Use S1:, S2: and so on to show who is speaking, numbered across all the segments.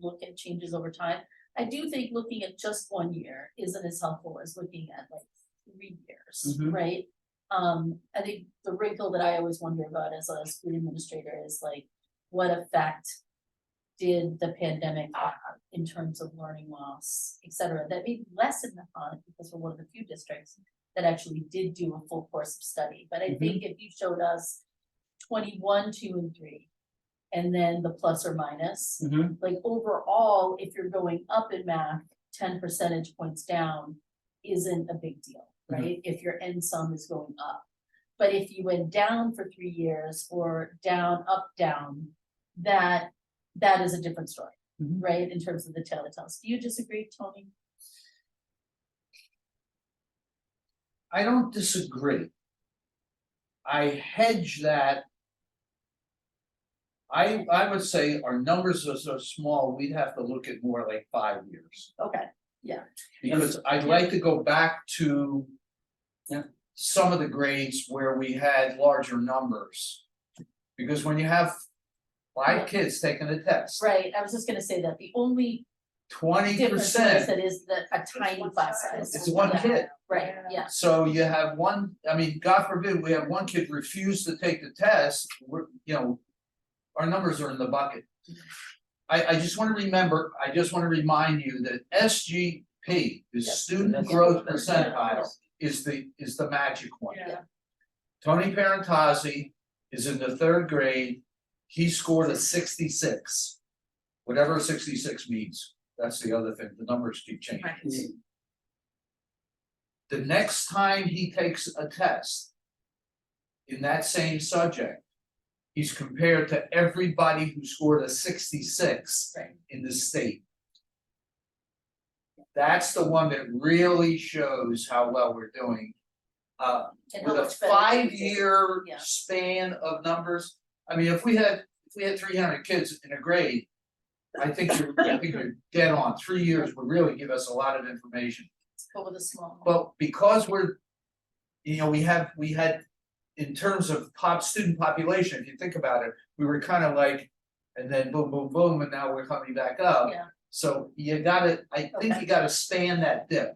S1: look at changes over time. I do think looking at just one year isn't as helpful as looking at like three years,
S2: Mhm.
S1: right? Um, I think the wrinkle that I always wonder about as a school administrator is like, what effect did the pandemic have in terms of learning loss, et cetera, that may lessen upon it because we're one of the few districts that actually did do a full course of study, but I
S2: Mhm.
S1: think if you showed us twenty-one, two, and three, and then the plus or minus,
S3: Mm-hmm.
S2: Mhm.
S1: like overall, if you're going up in math, ten percentage points down isn't a big deal,
S2: Mhm.
S1: right? If your end sum is going up. But if you went down for three years or down, up, down, that, that is a different story,
S2: Mhm.
S1: right? In terms of the telltales. Do you disagree, Tony?
S2: I don't disagree. I hedge that. I I would say our numbers are so small, we'd have to look at more like five years,
S1: Okay,
S2: because I'd like to go back to. Some of the grades where we had larger numbers. Because when you have
S1: Yeah.
S2: five kids taking a test,
S1: right, I was just gonna say that the only
S2: twenty
S1: difference is
S2: percent,
S1: that is the, a tiny class size.
S2: it's one
S1: Yeah,
S2: kid.
S1: Right, yeah,
S2: So you have one, I mean, God forbid, we have one kid refuse to take the test, we're, you know. Our numbers are in the bucket. I I just wanna remember, I just wanna remind you that S G P, the
S1: Yes.
S2: student growth percentile, is the is the magic one.
S1: Yeah.
S2: Tony Parentozzi is in the third grade, he scored a sixty-six. Whatever sixty-six means, that's the other thing, the numbers keep changing.
S1: Right.
S2: The next time he takes a test. In that same subject. He's compared to everybody who scored a sixty-six
S1: Right.
S2: in the state. That's the one that really shows how well we're doing. Uh,
S1: and how
S2: with a
S1: much better it is.
S2: five-year
S1: Yeah.
S2: span of numbers, I mean, if we had, if we had three hundred kids in a grade. I think you're, I think you're dead on, three years would really give us a lot of information,
S1: But with a small.
S2: but because we're. You know, we have, we had, in terms of pop student population, if you think about it, we were kind of like. And then boom, boom, boom, and now we're coming back up.
S1: Yeah.
S2: So you gotta, I think
S1: Okay.
S2: you gotta stand that dip.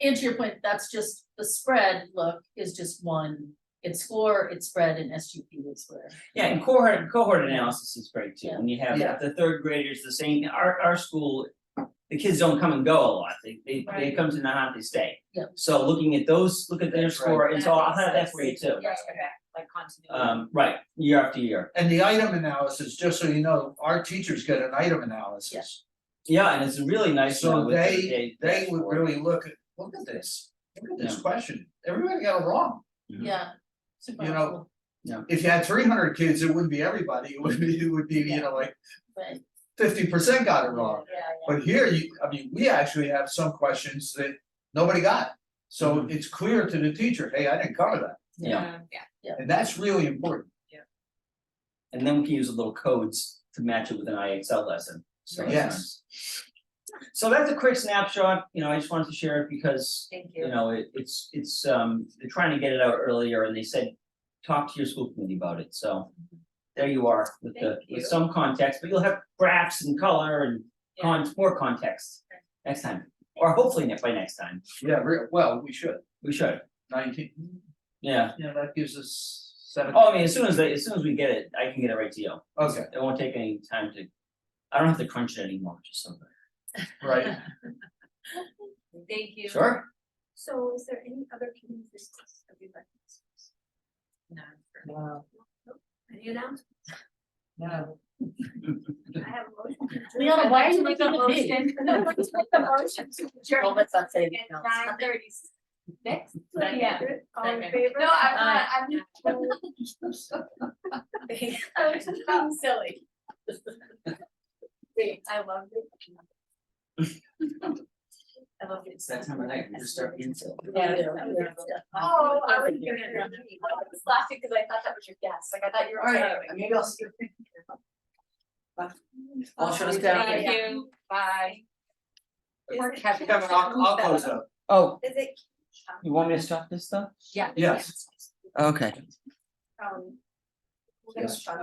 S1: And to your point, that's just, the spread look is just one, it's score, it's spread, and SGP is where.
S3: Yeah, and cohort cohort analysis is great too,
S1: Yeah.
S3: when you have
S2: Yeah.
S3: the third graders, the same, our our school. The kids don't come and go a lot, they they they
S1: Right.
S3: come to Nahat, they stay.
S1: Yeah.
S3: So looking at those, look at their
S2: That's right.
S3: score, and so I'll have that for you too.
S1: Yeah.
S4: Like continuity.
S3: Um, right, year after year,
S2: And the item analysis, just so you know, our teachers get an item analysis.
S3: yeah, and it's a really nice
S2: So
S3: one with the
S2: they, they would really look at, look at this, look at this question, everybody got it wrong.
S1: Yeah. Super
S2: You know,
S1: helpful,
S2: If you had three hundred kids, it wouldn't be everybody, it would be, it would be, you know, like
S1: but,
S2: fifty percent got it
S1: yeah,
S2: wrong. But here, you, I mean, we actually have some questions that nobody got. So
S3: Mhm.
S2: it's clear to the teacher, hey, I didn't cover that,
S3: Yeah,
S4: Yeah.
S2: and that's really important.
S3: and then we can use the little codes to match it with an IXL lesson, so. it's
S2: Yes.
S3: nice. So that's a quick snapshot, you know, I just wanted to share it because
S4: Thank
S3: you know, it it's it's um, they're trying to get it out earlier and they said, talk to your school committee about it, so. There you are with the
S4: Thank you.
S3: with some context, but you'll have graphs and color and cons, more context next time. Or hopefully ne- by next time,
S2: Yeah, re- well, we should,
S3: we should,
S2: nineteen,
S3: yeah,
S2: you know, that gives us seven,
S3: oh, I mean, as soon as they, as soon as we get it, I can get it right to you,
S2: okay,
S3: it won't take any time to. I don't have to crunch it anymore, just something,
S2: right.
S4: Thank you.
S3: sure,
S5: So is there any other community business that you'd like to discuss?
S4: No.
S5: No.
S4: Any announcements?
S5: No. I have a motion. to adjourn.
S1: Leona, why are you
S5: I'd like to
S1: looking at me?
S5: make a motion- I'd like to make a motion to
S1: Well,
S5: adjourn
S1: let's not say anything
S5: at
S1: else.
S5: nine thirty six.
S4: Yeah.
S5: All in
S4: Second.
S5: favor? No, I'm not, I'm. I was just being Oh, silly. Great, I love it.
S4: I love it.
S3: it's that time of night, we just start being silly.
S1: Yeah,
S5: Yeah.
S1: yeah, yeah.
S5: Oh, I was gonna, I was laughing because I thought that was your guess, like I thought you were.
S4: All right,
S5: saying-
S4: maybe I'll see
S3: I'll shut us down.
S5: Thank
S4: Thank
S5: you.
S4: you, bye.
S5: Or
S2: Kevin, I'll, I'll close up.
S3: Oh,
S5: Is it?
S3: you want me to stop this stuff?
S4: Yeah.
S2: Yes.
S3: Okay.
S5: Um.
S2: Yes.
S5: um,